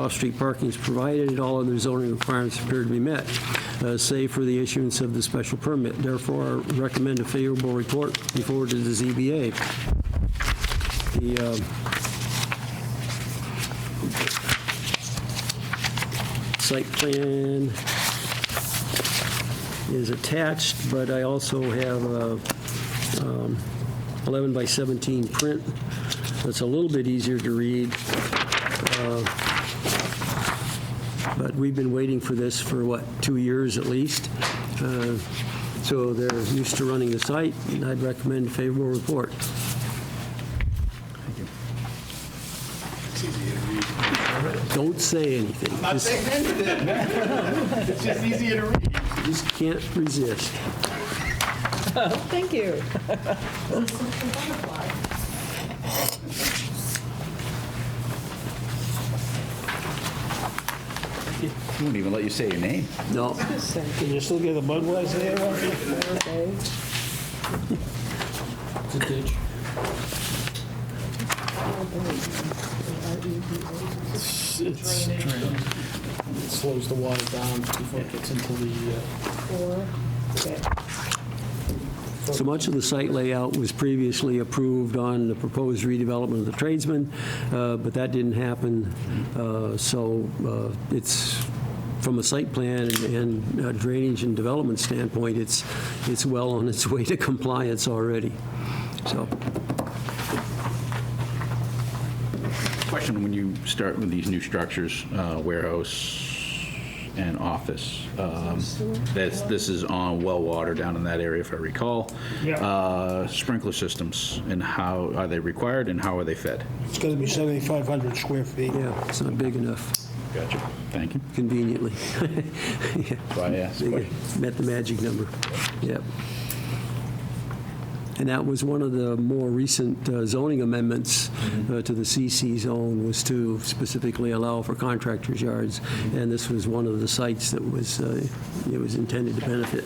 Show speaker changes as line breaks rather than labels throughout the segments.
Off-street parking is provided, all other zoning requirements appear to be met, uh, save for the issuance of the special permit. Therefore, I recommend a favorable report be forwarded to the ZBA. The, um, site plan is attached, but I also have a um, 11 by 17 print that's a little bit easier to read. Uh, But we've been waiting for this for, what, two years at least? Uh, So they're used to running the site, and I'd recommend favorable report.
It's easy to read.
Don't say anything.
I'm not
Just-
saying anything. It's just easier to read.
Just can't resist.
Thank you.
He won't even let you say your name.
No,
Can you still get a Budweiser there? Ron? It's it's drain. It slows the water down before it gets into the, uh,
so much of the site layout was previously approved on the proposed redevelopment of the tradesman, uh, but that didn't happen. Uh, So uh, it's, from a site plan and- and uh, drainage and development standpoint, it's, it's well on its way to compliance already. So,
Question, when you start with these new structures, uh, warehouse and office, um, that's, this is on well water down in that area, if I recall.
Yeah.
Uh, Sprinkler systems, and how, are they required, and how are they fed?
it's gonna be 7,500 square feet.
yeah, it's not big enough,
Gotcha. Thank you.
conveniently. Yeah.
That's why I asked the question.
Met the magic number. Yep. And that was one of the more recent uh, zoning amendments
Mm-hmm.
uh, to the CC zone was to specifically allow for contractors' yards.
Mm-hmm.
And this was one of the sites that was, uh, it was intended to benefit.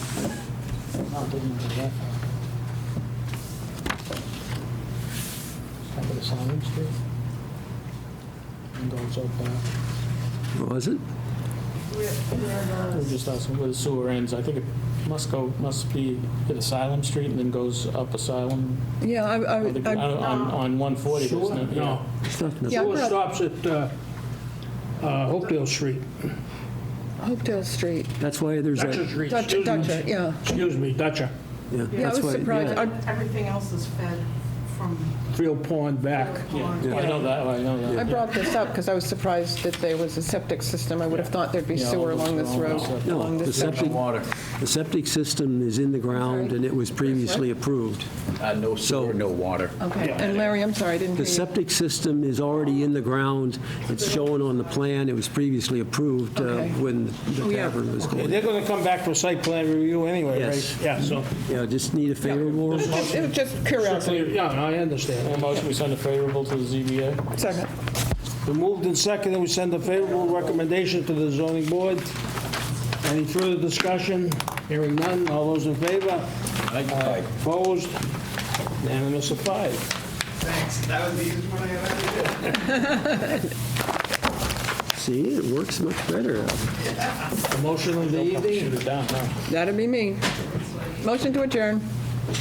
Not big enough for that. Top of the signage there. And goes up, uh,
Was it?
we're just asking where the sewer ends. I think it must go, must be at Asylum Street and then goes up Asylum.
Yeah, I, I,
I think On,
I-
on on 140, there's no. yeah.
It's not-
Yeah, I
Sewer
brought-
stops at uh, uh, Hopedale Street,
Hopedale Street,
That's why there's
Dutcher
that.
Street,
Dutcher,
excuse me.
Dutcher, yeah.
Excuse me, Dutcher.
Yeah, I
that's
was
why-
surprised.
yeah.
I-
Everything else is fed from
Field Pond back.
Pond.
I know that, I know that.
I brought this up because I was surprised that there was a septic system. I would have thought there'd be
Yeah,
sewer
all
along
those
this
are all
road,
septic.
No,
along
the
this
septic,
Water,
the septic system is in the ground
sorry.
and it was previously approved.
Uh, no sewer, no water.
Okay, and Larry, I'm sorry, I didn't
The
hear you.
septic system is already in the ground. It's shown on the plan. It was previously approved uh,
Okay.
when
Oh,
the
yeah.
tavern was
Yeah,
going.
They're going to come back for site plan review anyway, right?
Yes.
Yeah, so,
Yeah, just need a favorable
It was
report.
just- It was just curiosity.
yeah, no, I understand.
A motion, we send a favorable to the ZBA.
Second.
We moved in second, and we send a favorable recommendation to the zoning board. Any further discussion? Hearing none, all those in favor?
Aye.
Opposed? Unanimous of five.
Thanks. That was the easiest one I have ever did.
See, it works much better.
The motion of the evening?
Shoot it down, huh?
That'd be me. Motion to adjourn.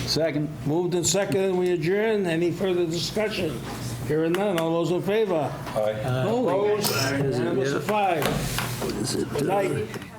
Second.
Moved and seconded, we adjourn. Any further discussion? Hearing none, all those in favor? Aye. Opposed? Unanimous of five.
Is it, uh,
Good night.